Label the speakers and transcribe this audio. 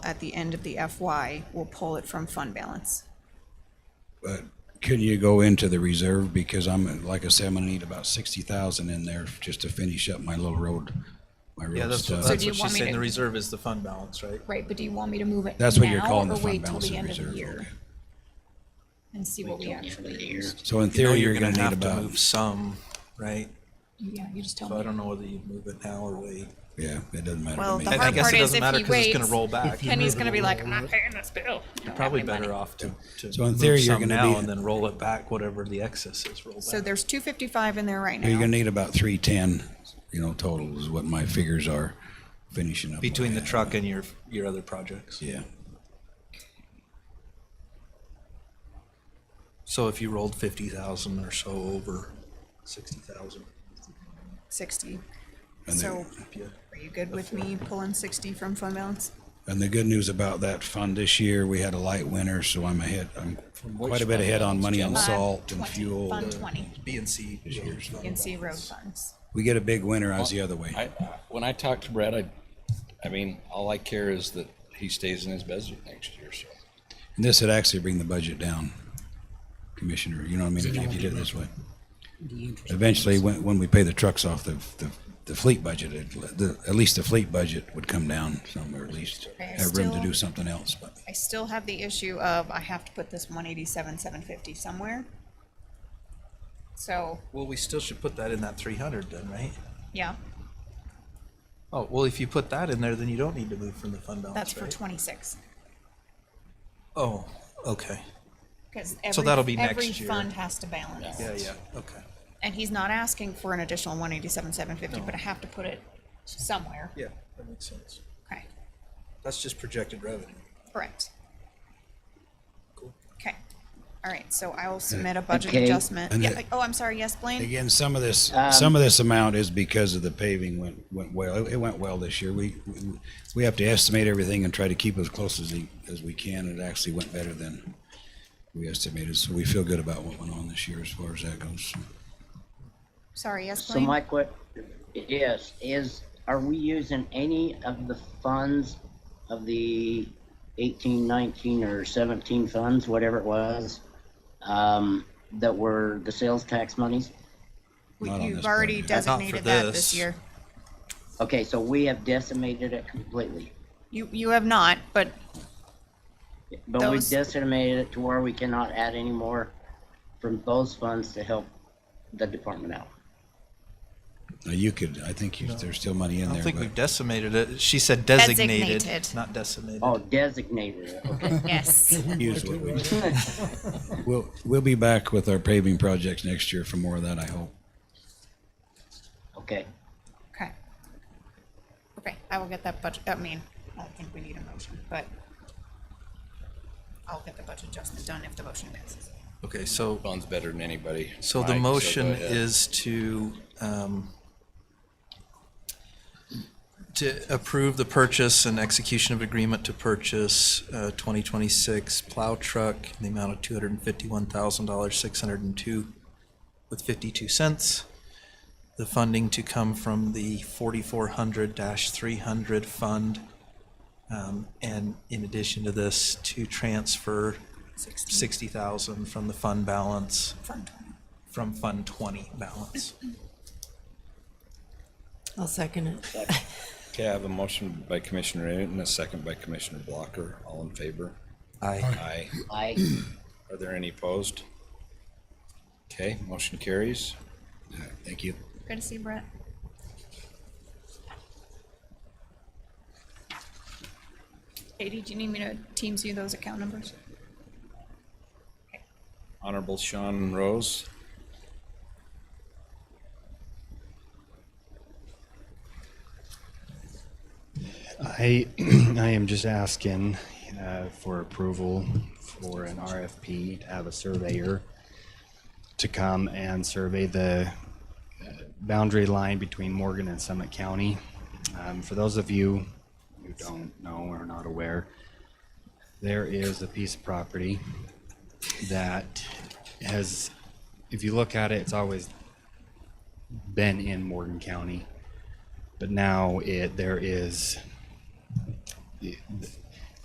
Speaker 1: at the end of the FY, we'll pull it from fund balance.
Speaker 2: But could you go into the reserve? Because I'm, like I said, I'm gonna need about sixty thousand in there just to finish up my little road, my
Speaker 3: Yeah,
Speaker 2: road
Speaker 3: that's,
Speaker 2: stuff.
Speaker 3: that's
Speaker 1: do
Speaker 3: what
Speaker 1: you
Speaker 3: she's
Speaker 1: want me
Speaker 3: saying,
Speaker 1: to-
Speaker 3: the reserve is the fund balance, right?
Speaker 1: Right, but do you want me to move it
Speaker 2: That's what you're
Speaker 1: now
Speaker 2: calling the
Speaker 1: or
Speaker 2: fund
Speaker 1: wait till
Speaker 2: balance
Speaker 1: the
Speaker 2: and
Speaker 1: end of the
Speaker 2: reserve.
Speaker 1: year
Speaker 2: okay.
Speaker 1: and see what we actually used?
Speaker 2: So in
Speaker 3: You know
Speaker 2: theory, you're gonna need
Speaker 3: have to
Speaker 2: about,
Speaker 3: move some, right?
Speaker 1: Yeah, you just tell
Speaker 3: So I
Speaker 1: me.
Speaker 3: don't know whether you move it now or wait.
Speaker 2: yeah, it doesn't matter
Speaker 1: Well,
Speaker 2: to me.
Speaker 1: the
Speaker 3: I- I
Speaker 1: hard
Speaker 3: guess
Speaker 1: part
Speaker 3: it
Speaker 1: is
Speaker 3: doesn't
Speaker 1: if
Speaker 3: matter
Speaker 1: he
Speaker 3: 'cause it's gonna
Speaker 1: waits,
Speaker 3: roll back. If you
Speaker 1: Penny's gonna be like, I'm not paying this bill. I don't have
Speaker 3: Probably
Speaker 1: my
Speaker 3: better
Speaker 1: money."
Speaker 3: off to, to
Speaker 2: So in
Speaker 3: move
Speaker 2: theory, you're
Speaker 3: some
Speaker 2: gonna
Speaker 3: now
Speaker 2: be-
Speaker 3: and then roll it back, whatever the excess is, roll
Speaker 1: So
Speaker 3: back.
Speaker 1: there's two fifty-five in there right
Speaker 2: You're gonna
Speaker 1: now.
Speaker 2: need about three ten, you know, total is what my figures are finishing up. what
Speaker 3: Between
Speaker 2: I
Speaker 3: the
Speaker 2: have.
Speaker 3: truck and your, your other projects.
Speaker 2: Yeah,
Speaker 3: So if you rolled fifty thousand or so over sixty thousand,
Speaker 1: Sixty.
Speaker 2: And
Speaker 1: So
Speaker 2: then-
Speaker 3: yeah.
Speaker 1: are you good with me pulling sixty from fund balance?
Speaker 2: and the good news about that fund this year, we had a light winter, so I'm ahead, I'm quite a bit ahead on money on
Speaker 1: Fund
Speaker 2: salt and
Speaker 1: 20,
Speaker 2: fuel.
Speaker 3: uh,
Speaker 1: Fund twenty,
Speaker 3: B and C. roads, not
Speaker 1: C road
Speaker 3: roads.
Speaker 1: funds.
Speaker 2: We get a big winter, I was the other way.
Speaker 4: I, when I talk to Brad, I, I mean, all I care is that he stays in his budget next year, so.
Speaker 2: And this would actually bring the budget down, Commissioner, you know what I mean, if you if you did it this way. Eventually, when, when we pay the trucks off the, the, the fleet budget, it, the, at least the fleet budget would come down some, or at least have room to do something else, but.
Speaker 1: I still have the issue of I have to put this one eighty-seven, seven fifty somewhere. So,
Speaker 3: Well, we still should put that in that three hundred then, right?
Speaker 1: yeah,
Speaker 3: Oh, well, if you put that in there, then you don't need to move from the fund balance,
Speaker 1: that's for
Speaker 3: right?
Speaker 1: twenty-six.
Speaker 3: Oh, okay.
Speaker 1: Because
Speaker 3: that'll be
Speaker 1: every,
Speaker 3: next
Speaker 1: every
Speaker 3: year.
Speaker 1: fund has to balance.
Speaker 3: Yeah, yeah, okay.
Speaker 1: And he's not asking for an additional one eighty-seven, seven fifty, but I have to put it somewhere.
Speaker 3: Yeah, that makes sense.
Speaker 1: Okay,
Speaker 3: That's just projected revenue.
Speaker 1: correct.
Speaker 3: Cool.
Speaker 1: Okay, all right, so I will submit a budget
Speaker 5: Okay.
Speaker 1: adjustment.
Speaker 2: And
Speaker 1: Yeah,
Speaker 2: the-
Speaker 1: like- oh, I'm sorry, yes, Blaine?
Speaker 2: Again, some of this, some of this amount is because of the paving went, went well. It- It went well this year. We, we- we have to estimate everything and try to keep as close as, we- as we can. It actually went better than we estimated, so we feel good about what went on this year as far as that goes.
Speaker 1: Sorry, yes,
Speaker 5: So
Speaker 1: Blaine?
Speaker 5: my que- yes, is, are we using any of the funds of the eighteen, nineteen, or seventeen funds, whatever it was, um, that were the sales tax monies?
Speaker 1: We-
Speaker 2: Not on
Speaker 1: You've
Speaker 2: this
Speaker 1: already
Speaker 2: budget.
Speaker 3: Not for
Speaker 1: designated that
Speaker 3: this.
Speaker 1: this year.
Speaker 5: Okay, so we have decimated it completely.
Speaker 1: You, you have not, but
Speaker 5: But we
Speaker 1: Those-
Speaker 5: decimated it to where we cannot add any more from those funds to help the department out.
Speaker 2: Now, you could, I think you, there's still money in
Speaker 3: I
Speaker 2: there.
Speaker 3: don't think
Speaker 2: but-
Speaker 3: we've decimated it. She said designated,
Speaker 1: Designated.
Speaker 3: not decimated.
Speaker 5: Oh, designated it, okay.
Speaker 1: yes,
Speaker 2: use what we. We'll, we'll be back with our paving projects next year for more of that, I hope.
Speaker 5: okay.
Speaker 1: okay. Okay, I will get that budget, I mean, I don't think we need a motion, but I'll get the budget adjustment done if the motion passes.
Speaker 3: Okay, so,
Speaker 4: Fun's better than anybody.
Speaker 3: so
Speaker 4: Mike,
Speaker 3: the
Speaker 4: go
Speaker 3: motion
Speaker 4: ahead.
Speaker 3: is to, um, to approve the purchase and execution of agreement to purchase, uh, twenty twenty-six plow truck in the amount of two hundred and fifty-one thousand dollars, six hundred and two with fifty-two cents. The funding to come from the forty-four hundred three hundred fund. Um, and in addition to this, to transfer
Speaker 1: Sixteen,
Speaker 3: sixty thousand from the fund balance,
Speaker 1: Fund twenty.
Speaker 3: from Fund Twenty balance.
Speaker 6: I'll second it.
Speaker 4: Okay, I have a motion by Commissioner Newton, a second by Commissioner Blocker. All in favor?
Speaker 3: I
Speaker 4: Aye.
Speaker 5: I,
Speaker 4: Are there any opposed? Okay, motion carries.
Speaker 2: All right, Thank you.
Speaker 1: Good to see you, Brett. Katie, do you need me to Teams you those account numbers?
Speaker 4: Honorable Sean Rose.
Speaker 7: I, I am just asking uh, for approval for an RFP to have a surveyor to come and survey the uh, boundary line between Morgan and Summit County. Um, For those of you who don't know or are not aware, there is a piece of property that has, if you look at it, it's always been in Morgan County. But now it, there is